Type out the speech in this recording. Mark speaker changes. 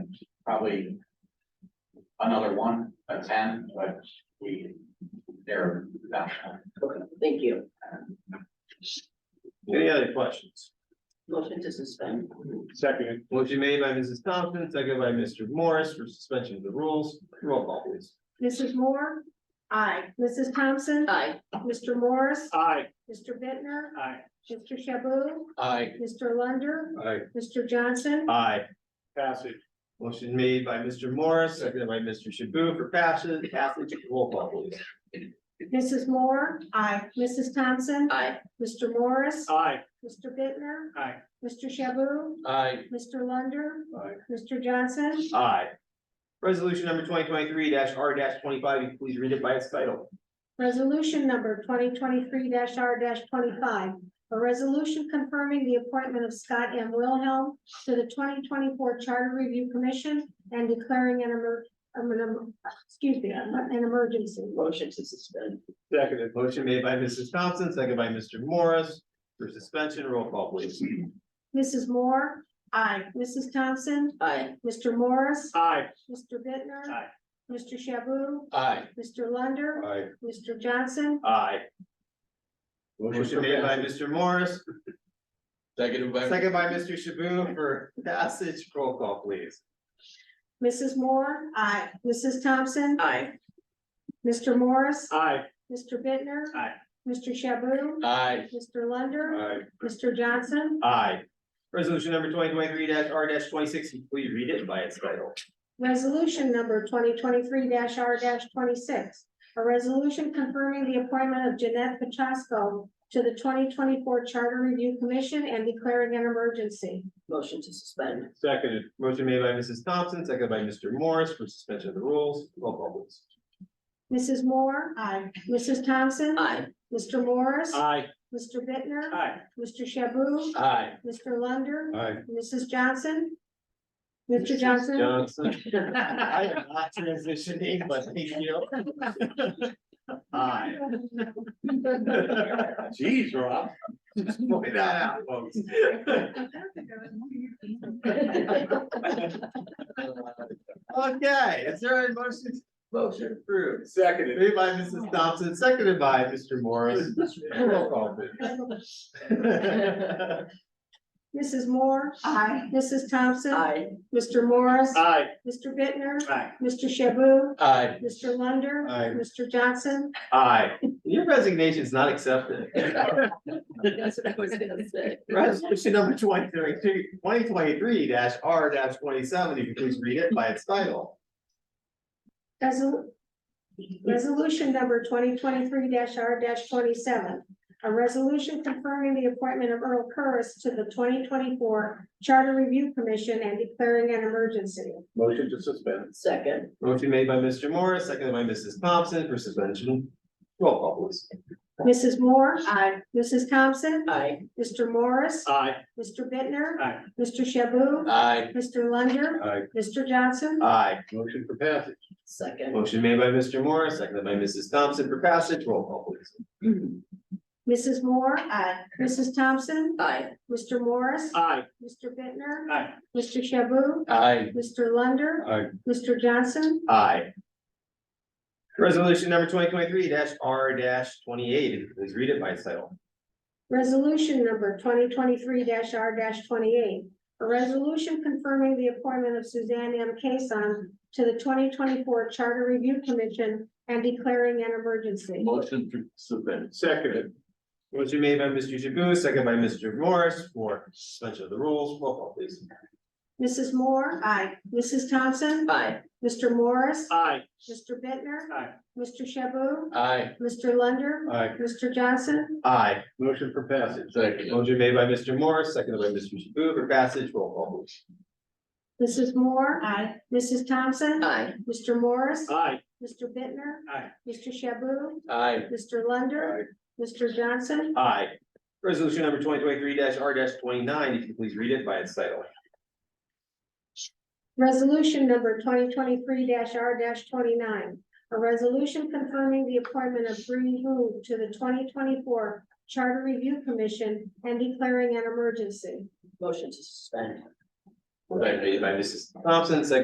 Speaker 1: probably another one, a ten, but we, they're not.
Speaker 2: Thank you.
Speaker 3: Any other questions?
Speaker 2: Motion to suspend.
Speaker 4: Second,
Speaker 3: Motion made by Mrs. Thompson, second by Mr. Morris for suspension of the rules. Roll call please.
Speaker 5: Mrs. Moore? Aye. Mrs. Thompson?
Speaker 2: Aye.
Speaker 5: Mr. Morris?
Speaker 4: aye.
Speaker 5: Mr. Bittner,
Speaker 4: Aye.
Speaker 5: Mr. Shaboo?
Speaker 1: I,
Speaker 5: Mr. Lunder?
Speaker 3: Aye.
Speaker 5: Mr. Johnson?
Speaker 3: Aye.
Speaker 4: Passage,
Speaker 3: Motion made by Mr. Morris, seconded by Mr. Shaboo for passage, passage. Roll call please.
Speaker 5: Mrs. Moore? Aye. Mrs. Thompson?
Speaker 2: Aye.
Speaker 5: Mr. Morris?
Speaker 4: aye.
Speaker 5: Mr. Bittner,
Speaker 4: Aye.
Speaker 5: Mr. Shaboo?
Speaker 1: I,
Speaker 5: Mr. Lunder?
Speaker 4: Aye.
Speaker 5: Mr. Johnson?
Speaker 3: Aye. Resolution number twenty twenty-three R twenty-five, you can please read it by its title.
Speaker 5: Resolution number twenty twenty-three R twenty-five. A resolution confirming the appointment of Scott M. Wilhelm to the twenty twenty-four Charter Review Commission and declaring an emer- um, an em- excuse me, an emergency.
Speaker 2: Motion to suspend.
Speaker 4: Seconded,
Speaker 3: Motion made by Mrs. Thompson, seconded by Mr. Morris for suspension. Roll call please.
Speaker 5: Mrs. Moore? Aye. Mrs. Thompson?
Speaker 2: Aye.
Speaker 5: Mr. Morris?
Speaker 4: aye.
Speaker 5: Mr. Bittner,
Speaker 4: Aye.
Speaker 5: Mr. Shaboo?
Speaker 1: I,
Speaker 5: Mr. Lunder?
Speaker 3: Aye.
Speaker 5: Mr. Johnson?
Speaker 3: Aye.
Speaker 1: for
Speaker 3: Motion made by Mr. Morris,
Speaker 1: second by.
Speaker 3: Second by Mr. Shaboo for passage, roll call please.
Speaker 5: Mrs. Moore? Aye. Mrs. Thompson?
Speaker 2: Aye.
Speaker 5: Mr. Morris?
Speaker 4: Aye.
Speaker 5: Mr. Bittner,
Speaker 4: Aye.
Speaker 5: Mr. Shaboo?
Speaker 1: I,
Speaker 5: Mr. Lunder?
Speaker 3: Aye.
Speaker 5: Mr. Johnson?
Speaker 3: Aye. Resolution number twenty twenty-three R twenty-six, Can you please read it by its title.
Speaker 5: Resolution number twenty twenty-three R twenty-six. A resolution confirming the appointment of Jeanette Pachasko to the twenty twenty-four Charter Review Commission and declaring an emergency.
Speaker 2: Motion to suspend.
Speaker 4: Seconded,
Speaker 3: Motion made by Mrs. Thompson, second by Mr. Morris for suspension of the rules, roll call please.
Speaker 5: Mrs. Moore? Aye. Mrs. Thompson?
Speaker 2: Aye.
Speaker 5: Mr. Morris?
Speaker 4: aye.
Speaker 5: Mr. Bittner,
Speaker 4: Aye.
Speaker 5: Mr. Shaboo?
Speaker 1: I,
Speaker 5: Mr. Lunder?
Speaker 3: Aye.
Speaker 5: Mrs. Johnson? Mr. Johnson?
Speaker 3: Johnson. I am not transitioning, but thank you. Aye.
Speaker 4: Geez, Rob.
Speaker 3: Just point that out, folks. Okay, is there a motion? Motion approved.
Speaker 4: Seconded.
Speaker 3: Made by Mrs. Thompson, seconded by Mr. Morris. Roll call, please.
Speaker 5: Mrs. Moore? Aye. Mrs. Thompson?
Speaker 2: Aye.
Speaker 5: Mr. Morris?
Speaker 4: Aye.
Speaker 5: Mr. Bittner,
Speaker 4: Aye.
Speaker 5: Mr. Shaboo?
Speaker 1: I,
Speaker 5: Mr. Lunder?
Speaker 3: Aye.
Speaker 5: Mr. Johnson?
Speaker 3: Aye. Your resignation is not accepted.
Speaker 2: That's what I was gonna say.
Speaker 3: Resolution number 2023 R twenty-seven, if you please read it by its title.
Speaker 5: Resol- Resolution number twenty twenty-three R twenty-seven. A resolution confirming the appointment of Earl Curris to the twenty twenty-four Charter Review Commission and declaring an emergency.
Speaker 4: Motion to suspend.
Speaker 2: Second.
Speaker 3: Motion made by Mr. Morris, seconded by Mrs. Thompson for suspension. Roll call, please.
Speaker 5: Mrs. Moore?
Speaker 2: Aye.
Speaker 5: Mrs. Thompson?
Speaker 2: Aye.
Speaker 5: Mr. Morris?
Speaker 4: Aye.
Speaker 5: Mr. Bittner,
Speaker 4: Aye.
Speaker 5: Mr. Shaboo?
Speaker 1: I,
Speaker 5: Mr. Lunder?
Speaker 4: Aye.
Speaker 5: Mr. Johnson?
Speaker 3: Aye.
Speaker 4: Motion for passage.
Speaker 2: Second.
Speaker 3: Motion made by Mr. Morris, seconded by Mrs. Thompson for passage. Roll call, please.
Speaker 5: Mrs. Moore? Aye. Mrs. Thompson?
Speaker 2: Aye.
Speaker 5: Mr. Morris?
Speaker 4: Aye.
Speaker 5: Mr. Bittner,
Speaker 4: Aye.
Speaker 5: Mr. Shaboo?
Speaker 1: I,
Speaker 5: Mr. Lunder?
Speaker 4: Aye.
Speaker 5: Mr. Johnson?
Speaker 3: Aye. Resolution number twenty twenty-three R twenty-eight, if you please read it by its title.
Speaker 5: Resolution number twenty twenty-three R twenty-eight. A resolution confirming the appointment of Suzanne M. Kason to the twenty twenty-four Charter Review Commission and declaring an emergency.
Speaker 1: motion to suspend.
Speaker 4: Seconded,
Speaker 3: Motion made by Mr. Shaboo, second by Mr. Morris for suspension of the rules. Roll call, please.
Speaker 5: Mrs. Moore? Aye. Mrs. Thompson?
Speaker 2: Aye.
Speaker 5: Mr. Morris?
Speaker 4: aye.
Speaker 5: Mr. Bittner,
Speaker 4: Aye.
Speaker 5: Mr. Shaboo?
Speaker 1: I,
Speaker 5: Mr. Lunder?
Speaker 4: Aye.
Speaker 5: Mr. Johnson?
Speaker 3: Aye.
Speaker 4: Motion for passage.
Speaker 1: second.
Speaker 3: Motion made by Mr. Morris, seconded by Mr. Shaboo for passage. Roll call, please.
Speaker 5: Mrs. Moore? Aye. Mrs. Thompson?
Speaker 2: Aye.
Speaker 5: Mr. Morris?
Speaker 4: Aye.
Speaker 5: Mr. Bittner,
Speaker 4: Aye.
Speaker 5: Mr. Shaboo?
Speaker 1: I,
Speaker 5: Mr. Lunder? Mr. Johnson?
Speaker 3: Aye. Resolution number twenty twenty-three R twenty-nine, if you please read it by its title.
Speaker 5: Resolution number twenty twenty-three R twenty-nine. A resolution confirming the appointment of Bree Wu to the twenty twenty-four Charter Review Commission and declaring an emergency.
Speaker 2: Motion to suspend.
Speaker 3: Motion made by Mrs. Thompson, seconded